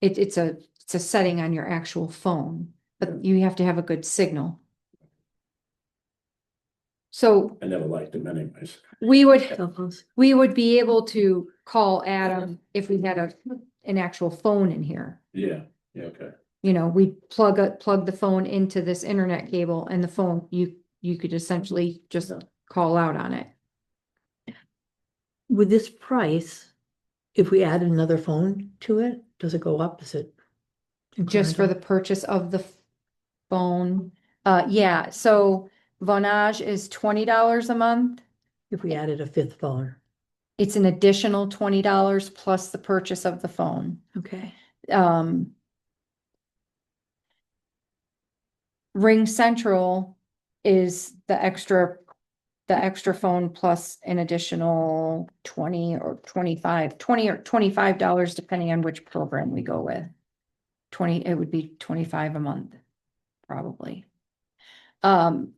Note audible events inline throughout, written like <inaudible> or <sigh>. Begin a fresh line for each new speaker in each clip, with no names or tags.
It, it's a, it's a setting on your actual phone, but you have to have a good signal. So
I never liked them anyways.
we would,
Cell phones.
we would be able to call Adam if we had a, an actual phone in here.
Yeah, yeah, okay.
You know, we plug, a- plug the phone into this internet cable and the phone, you, you could essentially just call out on it.
With this price, if we add another phone to it, does it go up? Is it?
Just for the
incremental?
purchase of the f- phone. Uh, yeah, so Vonage is twenty dollars a month.
If we added a fifth phone,
It's an additional twenty dollars plus the purchase of the phone.
okay.
Um. Ring Central is the extra, the extra phone plus an additional twenty or twenty-five, twenty or twenty-five dollars depending on which program we go with. Twenty, it would be twenty-five a month, probably. Um.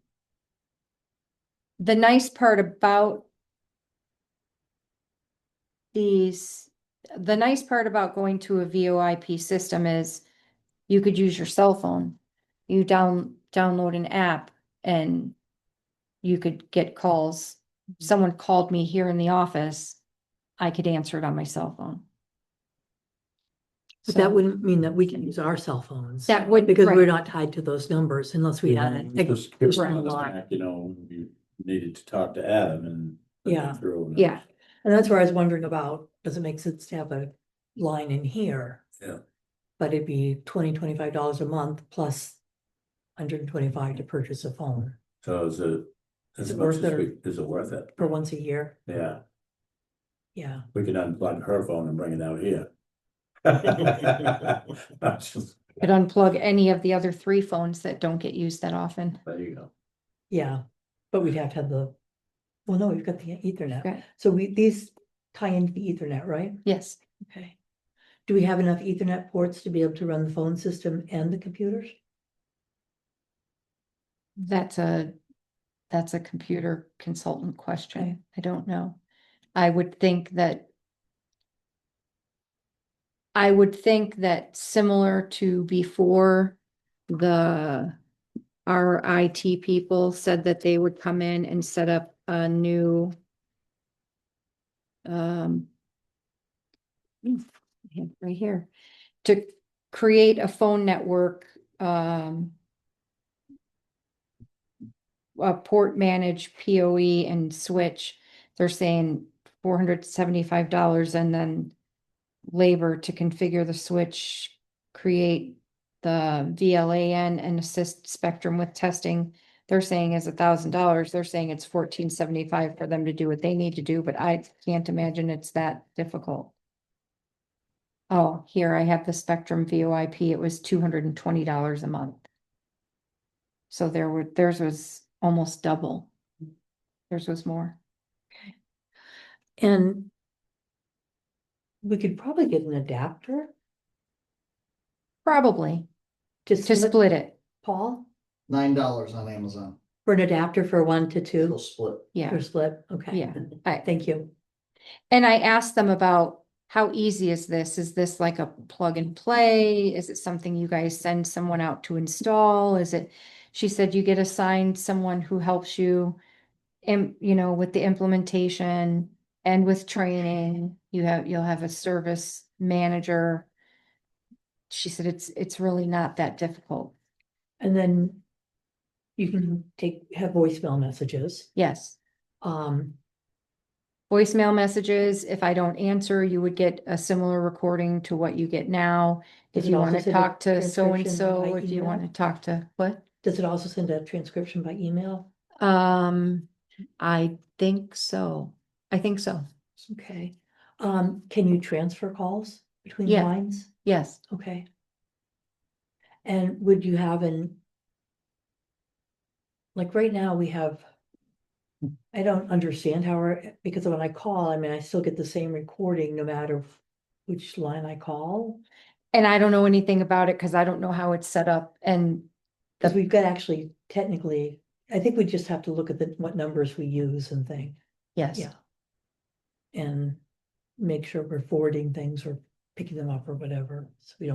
The nice part about these the nice part about going to a VoIP system is you could use your cell phone. You down, download an app and you could get calls.
Mm-hmm.
Someone called me here in the office. I could answer it on my cell phone.
But
So
that wouldn't mean that we can use our cell phones.
That would,
Because we're
right,
not tied to those numbers unless we had
Yeah,
it.
just give us
Right.
another snack, You know, you needed to talk to Adam and.
Yeah.
Through and-
yeah,
And that's where I was wondering about, does it make sense to have a line in here?
Yeah.
But it'd be twenty, twenty-five dollars a month plus hundred and twenty-five to purchase a phone
So is it, as
Is it
much
worth
as
it or-
we, is it worth it?
for once a year.
Yeah,
Yeah,
we could unplug her phone and bring it out <laughs> here. That's just-
could unplug any of the other three phones that don't get used that often.
There you go.
yeah, but we'd have to have the, well, no, we've got the ethernet.
Right.
So we, these tie into the ethernet, right?
Yes,
Okay. Do we have enough ethernet ports to be able to run the phone system and the computers?
that's a, that's a computer consultant question. I don't know. I would think that I would think that similar to before, the, our IT people said that they would come in and set up a new um, hmm, I have it right here, to create a phone network, um, a port manage, POE E and switch, they're saying four hundred seventy-five dollars and then labor to configure the switch, create the VLAN and assist Spectrum with testing. They're saying is a thousand dollars. They're saying it's fourteen seventy-five for them to do what they need to do, but I can't imagine it's that difficult. Oh, here I have the Spectrum VoIP. It was two hundred and twenty dollars a month. So there were, theirs was almost double. Theirs was more.
And we could probably get an adapter
Probably
to
to
split,
split it.
Paul,
Nine dollars on Amazon.
for an adapter for one to
It'll
two
split.
Yeah,
or split, okay.
yeah. I,
Thank you.
and I asked them about how easy is this? Is this like a plug and play? Is it something you guys send someone out to install? Is it? She said you get assigned someone who helps you im you know, with the implementation and with training. You have, you'll have a service manager. She said it's, it's really not that difficult.
And then you can take, have voicemail messages.
Yes.
Um,
voicemail messages. If I don't answer, you would get a similar recording to what you get now. If
Does it
you
also
want to
send a
talk to so and
transcription
so,
by
if you
email?
want to talk to what?
does it also send a transcription by email?
Um, I think so. I think so.
Okay. Um, can you transfer calls between
Yeah.
lines?
Yes.
Okay. And would you have an? Like right now, we have. I don't understand how, our- because when I call, I mean, I still get the same recording no matter which line I call.
And I don't know anything about it because I don't know how it's set up and
Cause we've got actually technically, I think we just have to look at the, what numbers we use and thing,
yes.
yeah. And make sure we're forwarding things or picking them up or whatever, so we don't.